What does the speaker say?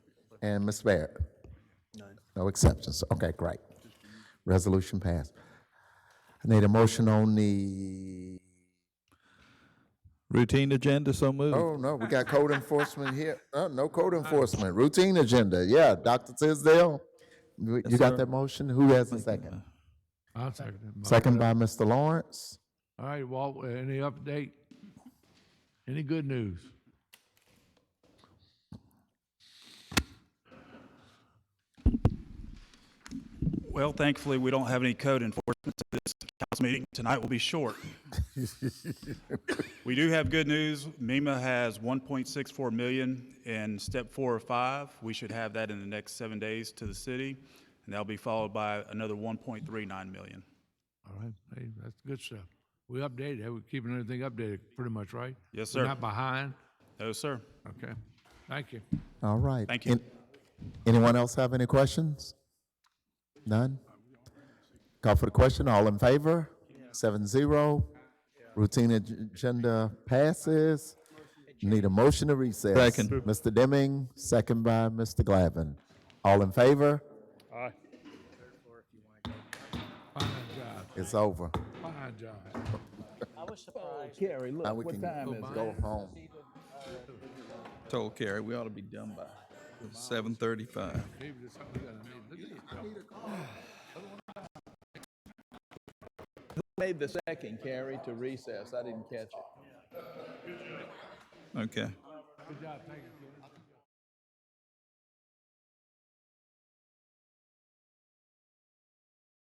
And Ms. Barrett? None. No exceptions. Okay, great. Resolution passed. I need a motion on the, Routine agenda, so moved. oh, no, we got code enforcement here. Uh, no code enforcement, routine agenda. Yeah, Dr. Tisdale? You you got that motion? Who has the second? I'll second it. Second by Mr. Lawrence? All right, Walt, any update? Any good news? Well, thankfully, we don't have any code enforcement at this council meeting. Tonight will be short. We do have good news. MEMA has 1.64 million in step four or five. We should have that in the next seven days to the city, and that'll be followed by another 1.39 million. All right, hey, that's good stuff. We updated, we're keeping everything updated pretty much, right? Yes, We're sir. Not behind? No, sir. Okay, thank you. All right. Thank you. An- Anyone else have any questions? None? Call for the question, all in favor? Seven zero. Routine ag- agenda passes. Need a motion to recess. Second. Mr. Deming, second by Mr. Glavin. All in favor? Fine job, It's over. fine job. Carrie, Now look, we what can time is it? go home. Told Carrie, we ought to be done by seven thirty-five. Maybe there's something we gotta make. Look at this. Made the second, Carrie, to recess. I didn't catch it. Okay. Good job, thank you.